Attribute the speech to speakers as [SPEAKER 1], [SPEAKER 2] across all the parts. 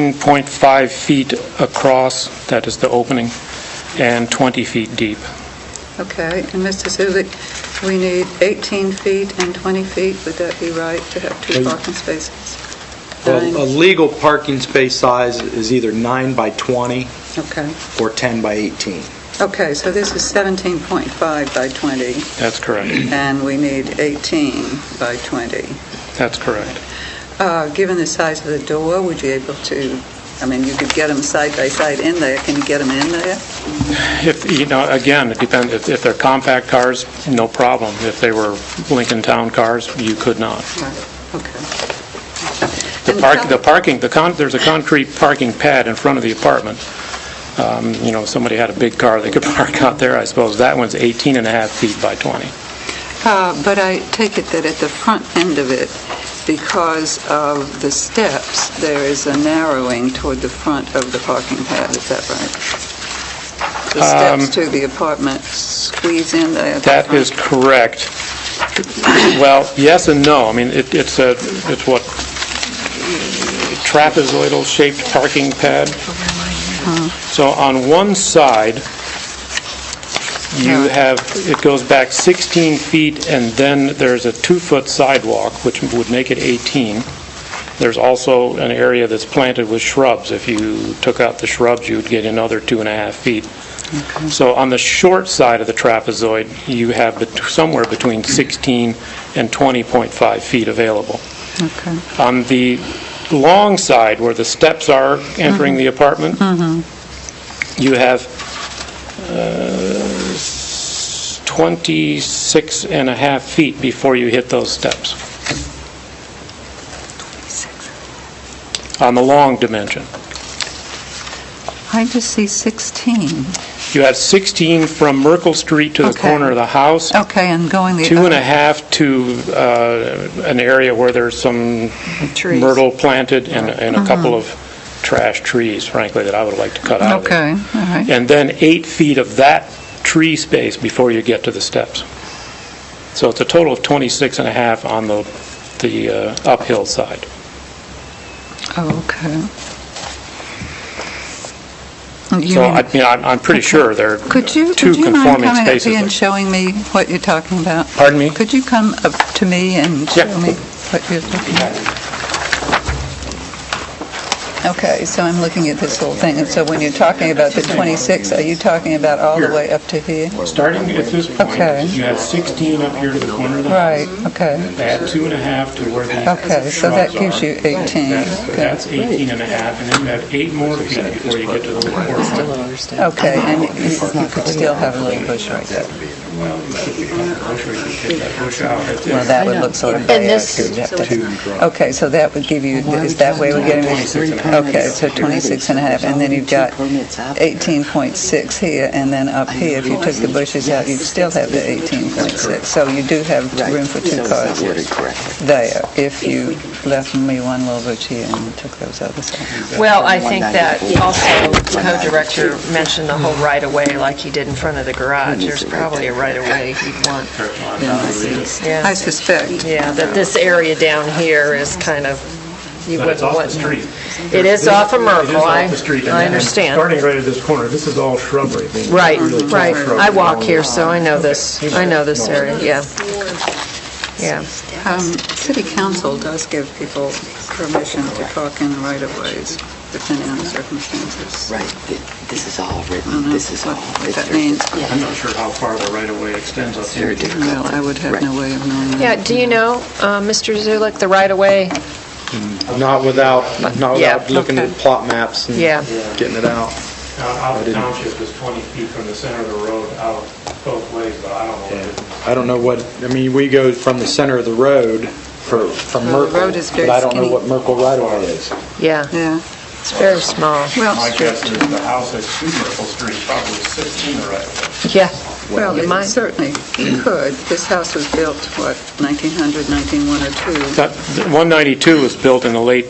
[SPEAKER 1] 17.5 feet across, that is the opening, and 20 feet deep.
[SPEAKER 2] Okay, and Mr. Zulik, we need 18 feet and 20 feet, would that be right, to have two
[SPEAKER 3] Well,
[SPEAKER 2] parking spaces?
[SPEAKER 3] Well, A
[SPEAKER 2] Nine?
[SPEAKER 3] legal parking space size is either 9 by 20
[SPEAKER 2] Okay,
[SPEAKER 3] or 10 by 18.
[SPEAKER 2] okay, so this is 17.5 by 20,
[SPEAKER 1] That's correct.
[SPEAKER 2] and we need 18 by 20.
[SPEAKER 1] That's correct.
[SPEAKER 2] Uh, Given the size of the door, would you able to, I mean, you could get them side by side in there, can you get them in there?
[SPEAKER 1] If, you know, again, it depends, if if they're compact cars, no problem. If they were Lincoln Town cars, you could not.
[SPEAKER 2] Right, Okay.
[SPEAKER 1] The
[SPEAKER 2] And
[SPEAKER 1] park,
[SPEAKER 2] how-
[SPEAKER 1] the parking, the con, there's a concrete parking pad in front of the apartment. Um, You know, if somebody had a big car, they could park out there, I suppose. That one's 18 and a half feet by 20.
[SPEAKER 2] Uh, But I take it that at the front end of it, because of the steps, there is a narrowing toward the front of the parking pad, is that right? The steps to the apartment squeeze in there. at the
[SPEAKER 1] Um, That
[SPEAKER 2] front.
[SPEAKER 1] is correct. Well, yes and no. I mean, it- it's a, it's what, trapezoidal-shaped parking pad. So on one side, you
[SPEAKER 2] Yeah.
[SPEAKER 1] have, it goes back 16 feet, and then there's a two-foot sidewalk, which would make it 18. There's also an area that's planted with shrubs. If you took out the shrubs, you'd get another two and a half feet. So on the short side of the trapezoid, you have bet- somewhere between 16 and 20.5 feet available.
[SPEAKER 2] Okay.
[SPEAKER 1] On the long side, where the steps are entering the apartment, you have uh, s- 26 and a half feet before you hit those steps. On the long dimension.
[SPEAKER 2] I just see 16.
[SPEAKER 1] You have 16 from Merkle Street to the
[SPEAKER 2] Okay. Oh,
[SPEAKER 1] corner of the house,
[SPEAKER 2] Okay, and going the other...
[SPEAKER 1] two and a half to uh, an area where there's some
[SPEAKER 2] Trees. Uh-huh.
[SPEAKER 1] myrtle planted and and a couple of trash trees, frankly, that I would like to cut out of there.
[SPEAKER 2] Okay, all right.
[SPEAKER 1] and then eight feet of that tree space before you get to the steps. So it's a total of 26 and a half on the, the uh, uphill side.
[SPEAKER 2] Oh, Okay. You
[SPEAKER 1] So,
[SPEAKER 2] mean-
[SPEAKER 1] I mean, I'm, I'm pretty sure there are
[SPEAKER 2] Could you,
[SPEAKER 1] two
[SPEAKER 2] would you mind
[SPEAKER 1] conforming
[SPEAKER 2] coming up
[SPEAKER 1] spaces.
[SPEAKER 2] here and
[SPEAKER 1] there.
[SPEAKER 2] showing me what you're talking about?
[SPEAKER 1] Pardon me?
[SPEAKER 2] Could you come up to me and
[SPEAKER 1] Yeah.
[SPEAKER 2] show me what you're looking at? Okay, so I'm looking at this whole thing, and so when you're talking about the 26, are you talking about all the way up to here?
[SPEAKER 1] Starting at this point,
[SPEAKER 2] Okay.
[SPEAKER 1] you have 16 up here to the corner of the
[SPEAKER 2] Right,
[SPEAKER 1] house.
[SPEAKER 2] okay,
[SPEAKER 1] Add two and a half to where the
[SPEAKER 2] okay, so that gives you 18.
[SPEAKER 1] That's that's 18 and a half, and then you have eight more feet before you get to the corner.
[SPEAKER 2] Okay, and you could still have a little bush right there. Well, that would look sort of
[SPEAKER 4] And
[SPEAKER 2] bad.
[SPEAKER 4] this-
[SPEAKER 2] Okay, so that would give you, is that way we're getting? Okay, so 26 and a half, and then you've got 18.6 here, and then up here, if you took the bushes out, you'd still have the 18.6. So you do have room for two cars there, if you left me one little bush here and took those others out.
[SPEAKER 4] Well, I think that also the co-director mentioned the whole right-of-way like he did in front of the garage. There's probably a right-of-way he'd want.
[SPEAKER 2] I
[SPEAKER 4] Yeah,
[SPEAKER 2] suspect,
[SPEAKER 4] Yeah, that this area down here is kind of, you
[SPEAKER 1] But it's
[SPEAKER 4] wouldn't
[SPEAKER 1] off the
[SPEAKER 4] want...
[SPEAKER 1] street.
[SPEAKER 4] It is off of
[SPEAKER 1] It is
[SPEAKER 4] Merkle. I
[SPEAKER 1] off the street.
[SPEAKER 4] I
[SPEAKER 1] And
[SPEAKER 4] understand.
[SPEAKER 1] Starting right at this corner, this is all shrubbery. I mean,
[SPEAKER 4] Right,
[SPEAKER 1] really tall
[SPEAKER 4] right.
[SPEAKER 1] shrubbery
[SPEAKER 4] I walk
[SPEAKER 1] along
[SPEAKER 4] here,
[SPEAKER 1] the-
[SPEAKER 4] so I know this, I know this area, yeah. Yeah.
[SPEAKER 2] um, city council does give people permission to park in right-of-ways, depending on the circumstances.
[SPEAKER 5] Right, th- this is all
[SPEAKER 2] I don't
[SPEAKER 5] written,
[SPEAKER 2] know
[SPEAKER 5] this is all.
[SPEAKER 2] Uh-huh. what- what
[SPEAKER 5] it's
[SPEAKER 2] that
[SPEAKER 5] very
[SPEAKER 2] means.
[SPEAKER 5] difficult.
[SPEAKER 1] I'm not sure how far the right-of-way extends up
[SPEAKER 5] It's
[SPEAKER 1] here.
[SPEAKER 5] very difficult.
[SPEAKER 2] Well, I would have
[SPEAKER 5] Right.
[SPEAKER 2] no way of knowing that.
[SPEAKER 4] Yeah, do you know, uh, Mr. Zulik, the right-of-way?
[SPEAKER 3] Not without, not
[SPEAKER 4] Yeah,
[SPEAKER 3] without looking at
[SPEAKER 2] okay.
[SPEAKER 3] plot maps and
[SPEAKER 4] Yeah.
[SPEAKER 3] getting it out.
[SPEAKER 1] Uh, Out
[SPEAKER 3] I
[SPEAKER 1] of the
[SPEAKER 3] didn't-
[SPEAKER 1] township is 20 feet from the center of the road out both ways, but I don't know. what it is.
[SPEAKER 3] I don't know what, I mean, we go from the center of the road for, from
[SPEAKER 2] Well, the
[SPEAKER 3] Merkle.
[SPEAKER 2] road is very
[SPEAKER 3] But I don't know
[SPEAKER 2] skinny.
[SPEAKER 3] what Merkle right-of-way is.
[SPEAKER 4] Yeah,
[SPEAKER 2] Yeah,
[SPEAKER 4] it's very small.
[SPEAKER 1] My
[SPEAKER 2] well,
[SPEAKER 1] guess is the house at 2 Myrtle Street probably is 16 or right.
[SPEAKER 4] Yeah,
[SPEAKER 2] well,
[SPEAKER 4] You
[SPEAKER 2] it
[SPEAKER 4] might-
[SPEAKER 2] certainly could. This house was built, what, 1900, 1902?
[SPEAKER 1] That- 192 was built in the late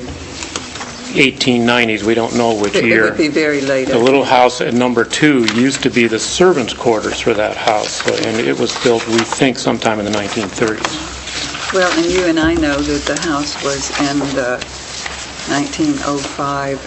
[SPEAKER 1] 1890s, we don't know which
[SPEAKER 2] It- It would be
[SPEAKER 1] year.
[SPEAKER 2] very late.
[SPEAKER 1] The little house at number two used to be the servants' quarters for that house, so- and it was built, we think, sometime in the 1930s.
[SPEAKER 2] Well, and you and I know that the oh house was in the 1905